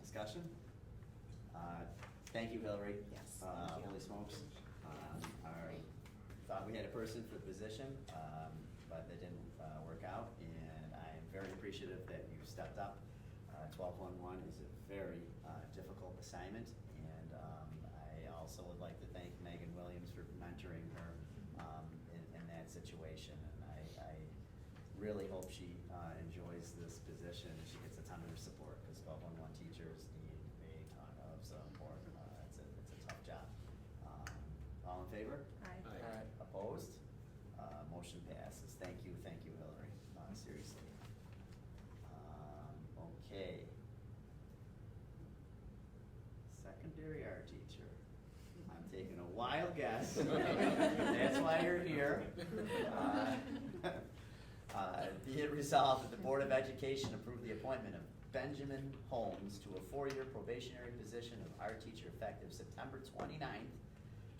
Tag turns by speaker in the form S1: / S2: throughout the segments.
S1: Discussion? Uh, Thank you, Hillary.
S2: Yes,
S1: Uh,
S2: thank you.
S1: Holy smokes. Um, I thought we had a person for the position, um, but that didn't uh, work out, and I am very appreciative that you stepped up. Uh, Twelve-one-one is a very uh, difficult assignment, and um, I also would like to thank Megan Williams for mentoring her um, in in that situation, and I- I really hope she uh, enjoys this position and she gets a ton of her support because 1211 teachers need a ton of support. Uh, it's, a, it's a tough job. Um, all in favor?
S2: Aye.
S3: Aye.
S1: Opposed? Uh, motion passes. Thank you, thank you, Hillary. Uh, seriously. Um, okay. Secondary art teacher. I'm taking a wild guess. That's why you're here. Uh, uh, Be it resolved that the Board of Education approve the appointment of Benjamin Holmes to a four-year probationary position of art teacher effective September 29th,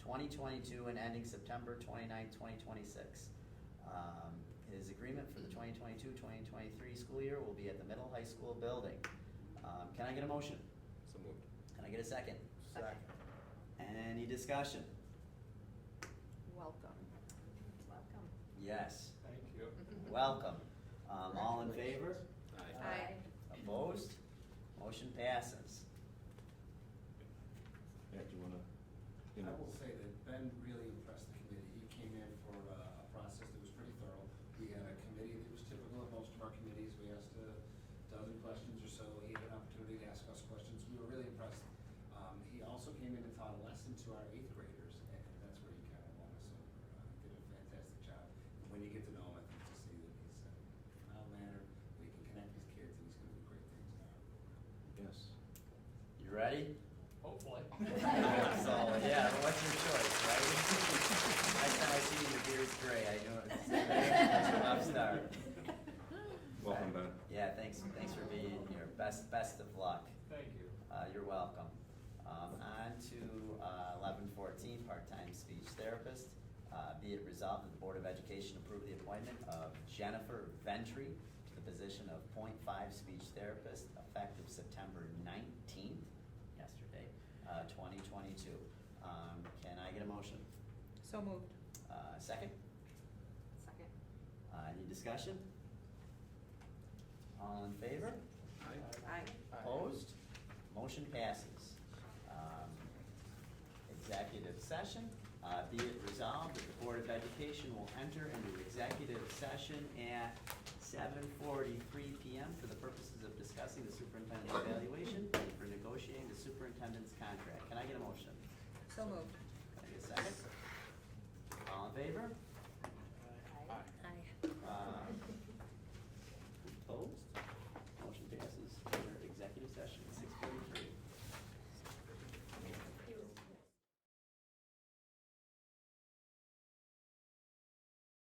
S1: twenty-two, and ending September 29th, twenty-twenty-six. Um, His agreement for the 2022-2023 school year will be at the middle high school building. Um, Can I get a motion?
S3: So moved.
S1: Can I get a second?
S2: Second.
S1: Any discussion?
S2: Welcome. Welcome.
S1: Yes,
S3: Thank you.
S1: welcome. Um, All in favor?
S3: Aye.
S2: Aye.
S1: Opposed? Motion passes.
S4: Yeah, do you wanna, you
S5: I
S4: know,
S5: will say that Ben really impressed the committee. He came in for uh, a process that was pretty thorough. We had a committee that was typical of most of our committees. We asked a dozen questions or so. He had an opportunity to ask us questions. We were really impressed. Um, He also came in and taught a lesson to our eighth graders, and that's where he kind of won us over. Uh, Did a fantastic job. And when you get to know him, I think you'll see that he's uh, mild mannered, we can connect with kids, and he's gonna do great things in our program.
S4: yes.
S1: You ready?
S3: Hopefully.
S1: So, yeah, what's your choice, right? Next time I see you, your beard's gray, I know it's an upstart.
S4: Welcome, Ben.
S1: Yeah, thanks, thanks for being here. Best, best of luck.
S3: Thank you.
S1: Uh, you're welcome. Um, on to, uh, eleven fourteen, part-time speech therapist. Uh, be it resolved that the Board of Education approve the appointment of Jennifer Ventry to the position of 0.5 speech therapist effective September nineteenth, yesterday, uh, twenty twenty-two. Um, can I get a motion?
S2: So moved.
S1: Uh, second?
S2: Second.
S1: Uh, any discussion? All in favor?
S2: Aye.
S1: Opposed? Motion passes. Um, Executive session, Uh, be it resolved that the Board of Education will enter into executive session at seven forty-three PM for the purposes of discussing the superintendent's evaluation